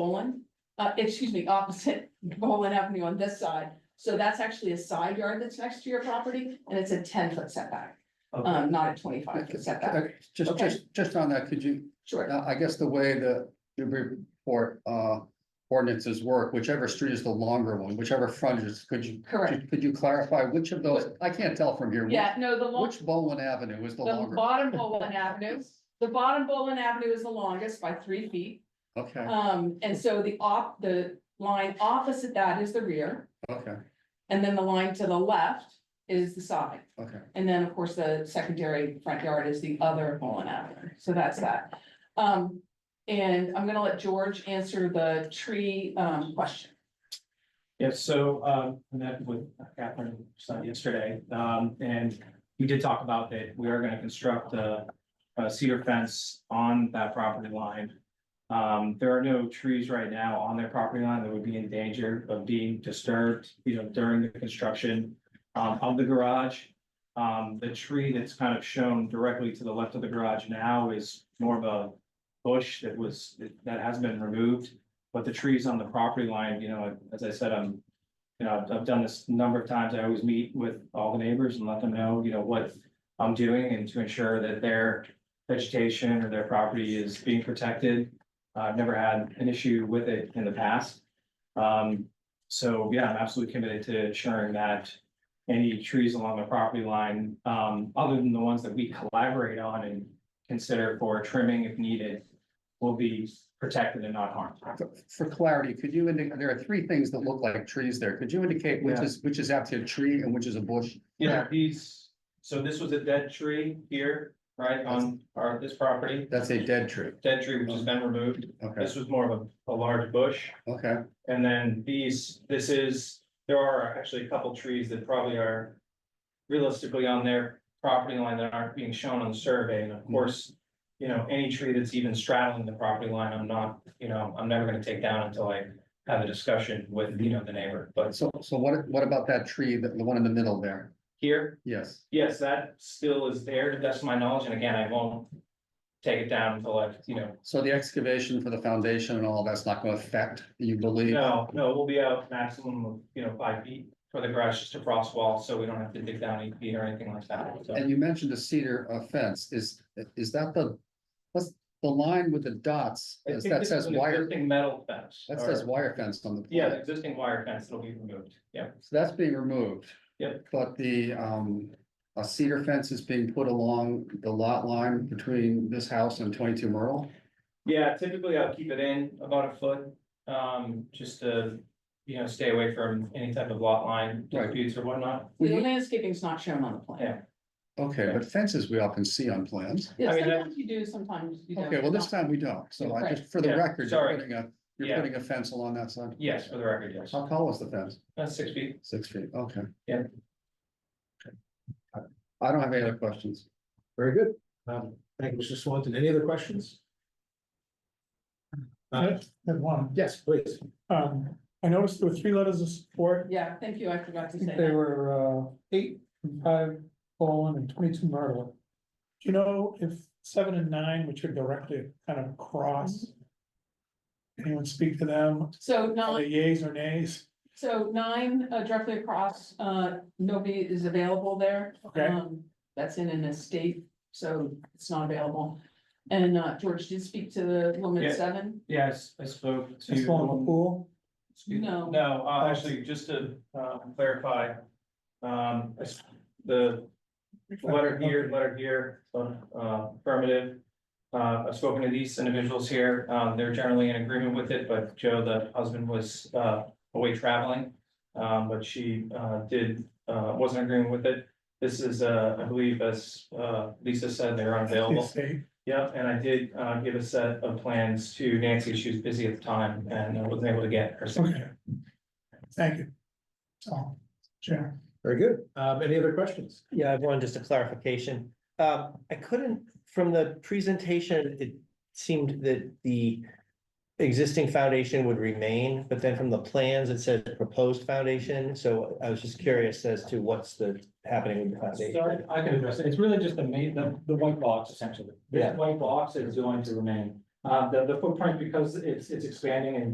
Bolin, uh, excuse me, opposite Bolin Avenue on this side. So that's actually a side yard that's next to your property and it's a ten foot setback, Okay. um, not a twenty five foot setback. Okay, Just, Okay. just, just on that, could you, Sure. now, I guess the way the Newbury Port, uh, ordinances work, whichever street is the longer one, whichever frontage, is- could you, Correct. could you clarify which of those, I can't tell from here. which- Yeah, no, the long, Which Bolin Avenue is the the longer? bottom Bolin Avenue, the bottom Bolin Avenue is the longest by three feet. Okay, Um, and so the op, the line opposite that is the rear. okay, And then the line to the left is the side. okay. And then, of course, the secondary front yard is the other Mullen Avenue, so that's that. Um, and I'm gonna let George answer the tree, um, question. Yeah, so, um, I met with Catherine Stein yesterday, um, and we did talk about that, we are gonna construct a, a cedar fence on that property line. Um, there are no trees right now on their property line that would be in danger of being disturbed, you know, during the construction, um, of the garage. Um, the tree that's kind of shown directly to the left of the garage now is more of a bush that was, that has been removed. But the trees on the property line, you know, as I said, I'm, you know, I've- I've done this a number of times. I always meet with all the neighbors and let them know, you know, what I'm doing and to ensure that their vegetation or their property is being protected. Uh, I've never had an issue with it in the past. Um, so yeah, I'm absolutely committed to ensuring that any trees along the property line, um, other than the ones that we collaborate on and consider for trimming if needed, will be protected and not harmed. For- For clarity, could you indicate, there are three things that look like trees there. Could you indicate which Yeah. is, which is actually a tree and which is a bush? Yeah, these, so this was a dead tree here, right, on our, this property, That's a dead tree. dead tree which has been removed. Okay, This was more of a, a large bush. okay, And then these, this is, there are actually a couple trees that probably are realistically on their property line that aren't being shown on the survey, and of course, you know, any tree that's even straddling the property line, I'm not, you know, I'm never gonna take down until I have a discussion with, you know, the neighbor, but so, so what, what about that tree, the, the one in the middle there? here, Yes, Yes, that still is there, that's my knowledge, and again, I won't take it down until I, you know, so the excavation for the foundation and all that's not gonna affect, you believe? no, no, we'll be out maximum of, you know, five feet for the garage, just a frost wall, so we don't have to dig down eight feet or anything like that, so. And you mentioned a cedar uh, fence, is, is that the, what's the line with the dots, I Is think that this says is an wire, Existing metal fence. that or- says wire fence on the. Yeah, plan. the existing wire fence that'll be removed, yeah. So that's being removed. Yep. But the, um, a cedar fence is being put along the lot line between this house and twenty-two Myrtle? Yeah, typically I'll keep it in about a foot, um, just to, you know, stay away from any type of lot line Right. disputes or whatnot. The landscaping's not shown on the Mm-hmm. Yeah. plan. Okay, but fences we often see on plans. Yeah, I mean, that- sometimes you do, sometimes you don't. Okay, well, this time we don't, so I just, for the Right. Yeah, record, you're sorry. putting a, you're Yeah. putting a fence along that side? Yes, for the record, yes, How tall is the fence? that's six feet. Six feet, okay. Yeah. Okay. I I don't have any other questions. Very good. Um, thank you, Mr. Swanton. Any other questions? Uh, Have one. yes, please. Um, I noticed there were three letters of support. Yeah, thank you, I forgot I to say think they that. were, uh, eight, and five, Bolin, and twenty-two Myrtle. Do you know if seven and nine, which are directly kind of across? Anyone speak to them? So Are nine, they yays or nays? so nine uh, directly across, uh, nobody is available there. Okay. Um, That's in an estate, so it's not available. And, uh, George did speak to the woman Yeah. at seven. Yes, I spoke to. Just one in the pool? Excuse- No. No, uh, actually, just to, uh, clarify, um, I s- the letter here, letter here, uh, affirmative. Uh, I've spoken to these individuals here, um, they're generally in agreement with it, but Joe, the husband, was, uh, away traveling. Um, but she, uh, did, uh, wasn't agreeing with it. This is, uh, I believe, as, uh, Lisa said, they're unavailable. Estate. Yep, and I did uh give a set of plans to Nancy, she was busy at the time and I wasn't able to get her. Okay. Thank you. So, Sharon. Very good. Um, any other questions? Yeah, I have one, just a clarification. Um, I couldn't, from the presentation, it seemed that the existing foundation would remain, but then from the plans, it said proposed foundation. So I was just curious as to what's the happening with the foundation. I can address it, it's really just the main, the the white box essentially. This Yeah. white box is going to remain. Um, Uh, the, the footprint, because it's, it's expanding and